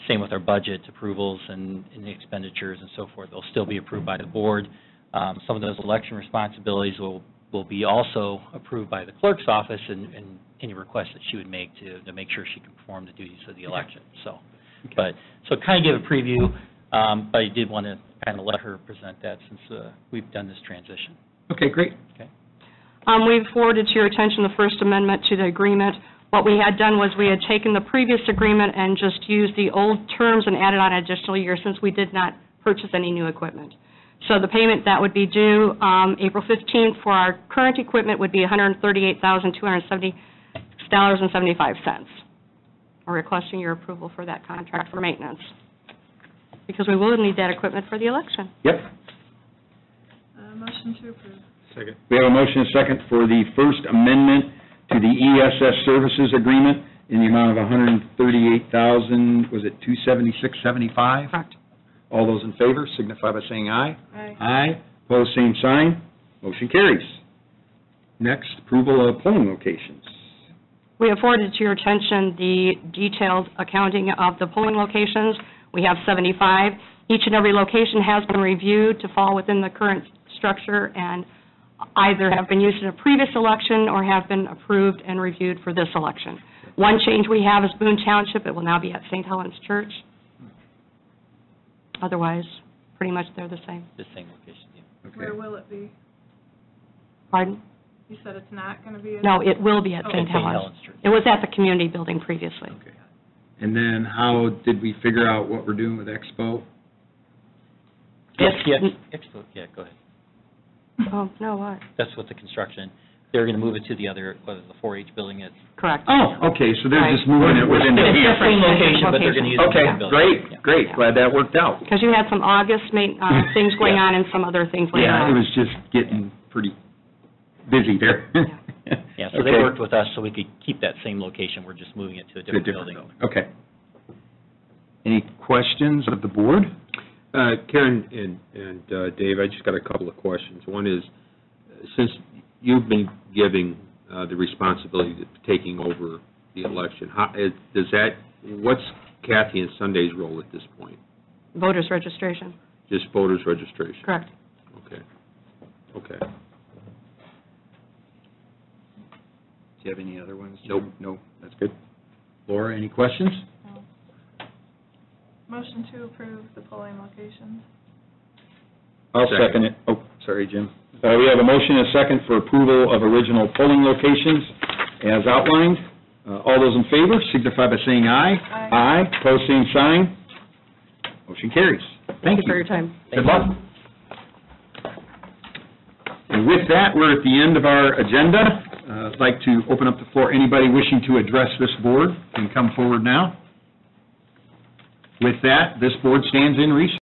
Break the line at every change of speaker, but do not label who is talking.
Same with our budget approvals and and expenditures and so forth. They'll still be approved by the board. Um, Some of those election responsibilities will, will be also approved by the clerk's office and, and any requests that she would make to, to make sure she can perform the duties of the election, so. But, so kind of give a preview, um, but I did want to kind of let her present that since uh, we've done this transition.
Okay, great.
Um, We've forwarded to your attention the First Amendment to the agreement. What we had done was we had taken the previous agreement and just used the old terms and added on an additional year since we did not purchase any new equipment. So the payment that would be due um, April 15th for our current equipment would be $138,270.75. We're requesting your approval for that contract for maintenance, because we will need that equipment for the election.
Yep.
Uh, Motion to approve.
Second.
We have a motion and a second for the First Amendment to the ESS Services Agreement in the amount of $138,000, was it 276.75?
Correct.
All those in favor signify by saying aye.
Aye.
Aye. Pose same sign. Motion carries. Next, approval of polling locations.
We have forwarded to your attention the detailed accounting of the polling locations. We have 75. Each and every location has been reviewed to fall within the current structure and either have been used in a previous election or have been approved and reviewed for this election. One change we have is Boone Township. It will now be at St. Helens Church. Otherwise, pretty much they're the same.
This same location, yeah.
Okay.
Where will it be?
Pardon?
You said it's not going to be? in-
No, it will be at
Oh,
St.
at St.
Helens.
Church.
It was at the community building previously.
Okay. And then how did we figure out what we're doing with Expo?
Yes, yes, Expo, yeah, go ahead.
Oh, no, what?
That's with the construction. They're going to move it to the other, what is it, the 4-H building is.
Correct.
Oh, okay, so they're
Right.
just moving it within the
It's
Different-
the
year.
same location, but they're going to use the same
Okay,
building. Yeah.
great, great, glad that worked out.
Because you had some August ma- uh, things going on and some other things later
Yeah,
on.
it was just getting pretty busy there.
Yeah, so they
Okay.
worked with us so we could keep that same location, we're just moving it to a
To a
different
different
building.
building, okay. Any questions of the board?
Uh, Karen and, and uh, Dave, I just got a couple of questions. One is, uh, since you've been giving uh, the responsibility to taking over the election, how, is- does that, what's Kathy and Sunday's role at this point?
Voters registration,
Just voters registration?
correct.
Okay, okay.
Do you have any other ones?
Nope.
No, that's good. Laura, any questions?
Motion to approve the polling locations.
I'll second
Second.
it. Oh, sorry, Jim. Uh, We have a motion and a second for approval of original polling locations as outlined. Uh, All those in favor signify by saying aye.
Aye.
Aye, pose same sign. Motion carries. Thank you.
for your time.
Good luck. And with that, we're at the end of our agenda. Uh, I'd like to open up the floor. Anybody wishing to address this board can come forward now. With that, this board stands in recess.